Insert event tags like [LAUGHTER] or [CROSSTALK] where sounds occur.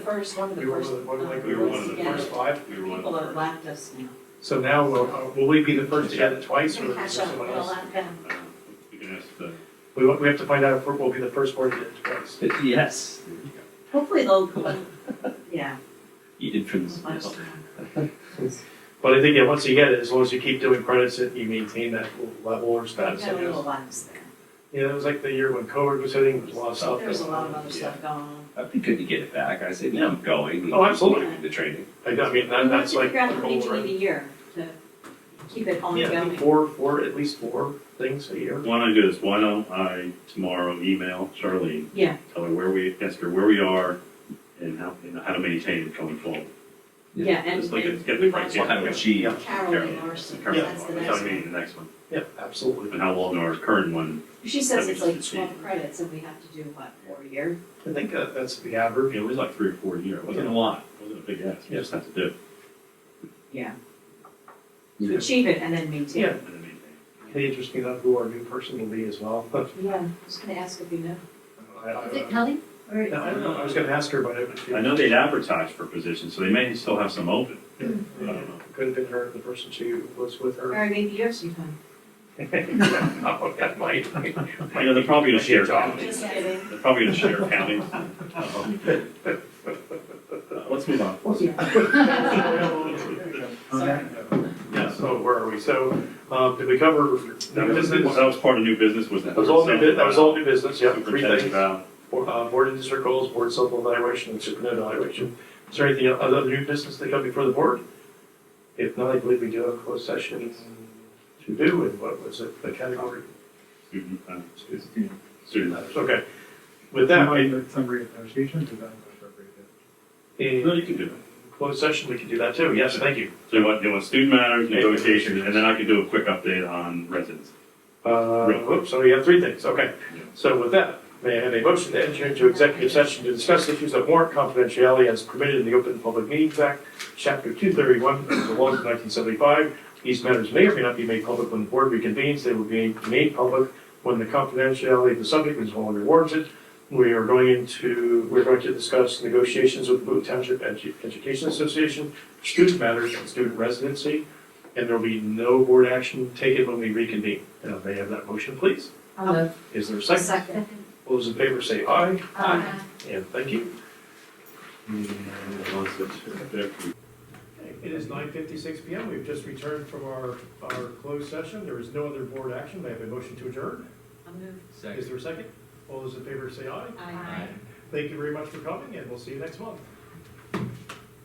First, one of the We were first. one of the- one of the- uh, we were one of the yeah, first five. We were one People have of the lapped us now. So now, will, uh, will we be the first to get it twice, or We is there catch up, someone we'll else? lap them. first. Uh, You can ask the, We, wa- we have to find out if we're- we'll be the first board to get it twice. Yes, Hopefully they'll, [LAUGHS] come. yeah. you did from this. most of them. But I think, yeah, once you get it, as long as you keep doing credits, and you maintain that level or Got status, a I little guess. lapse there. Yeah, it was like the year when COVID was hitting, there was a lot of stuff. There was a going lot of on. other stuff going on. That'd be good to get it back. I said, yeah, I'm going. Oh, absolutely. The training. I don't- I mean, that, You have that's to like. figure out how many the you need a year to keep it whole- ongoing. Yeah, I think four, four, at least four things a year. why don't I do this, why don't I tomorrow email Charlene? Yeah. Tell her where we, ask her where we are and how, and how to maintain it going forward. Yeah, and. Just like and it's get we the want We'll have a criteria. G. Carolyn Larson, Current that's the one, next I one. mean, the next one, Yeah, absolutely. and how long our current one, She says That it's we like should twelve see. credits and we have to do what, four a year? I think uh, that's the average. it was like three or four a year, it wasn't a lot, it wasn't a big ask, we just have to do it. Yeah. Yeah. Achieve it and then maintain. Yeah. and then maintain. It'd interest me to know who our new person will be as well. [LAUGHS] Yeah, I was gonna ask if you know. I, I, Is it Kelly? Or No, I don't know. I was gonna ask her, but I didn't feel- I know they'd advertise for positions, so they may still have some open, Yeah, I don't know. Could Uh, have been her, the person she was with her. Or maybe you have some time. [LAUGHS] Oh, that might. I know they're probably gonna share counties, Just kidding. they're probably gonna share counties. Uh, Let's move on. Okay. Yeah, So where are we? So, um, did we cover That new was, that business? was part of new business, was that? That was all new, bu- that was all new business, yeah, three Superintendent things. Val. Bo- Uh, board and district goals, board self-evaluation, and superintendent evaluation. Is there anything, other new business that come before the board? If not, I believe we do have a closed session to do, and what was it, the category? student, uh, student- Yeah. student. Okay. With that, Somebody I, with Summary of negotiations, is that appropriate? No, in you can do it. closed session, we can do that too. Yes, thank you. So you want, you want student matters, negotiation, and then I can do a quick update on residents. Uh, Right. whoops, so we have three things, okay. Yeah. So with that, may I have a motion to enter into executive session to discuss issues of warrant confidentiality as permitted in the Open Public Meetings Act, Chapter two thirty-one of the laws of nineteen seventy-five. These matters may or may not be made public when the board reconvenes, they will be made public when the confidentiality of the subject is no longer warranted. We are going into, we're going to discuss negotiations with the Boot Township Edu- Education Association, student matters and student residency and there'll be no board action taken when we reconvene. Uh, may I have that motion, please? I'll move. Is there a second? Second. All those in favor say aye, Aye. and thank you. Mm. It is nine fifty-six PM, we've just returned from our, our closed session, there is no other board action, may I have a motion to adjourn? I'll move. Is there a second? All those in favor say aye. Aye. Thank you very much for coming, and we'll see you next month.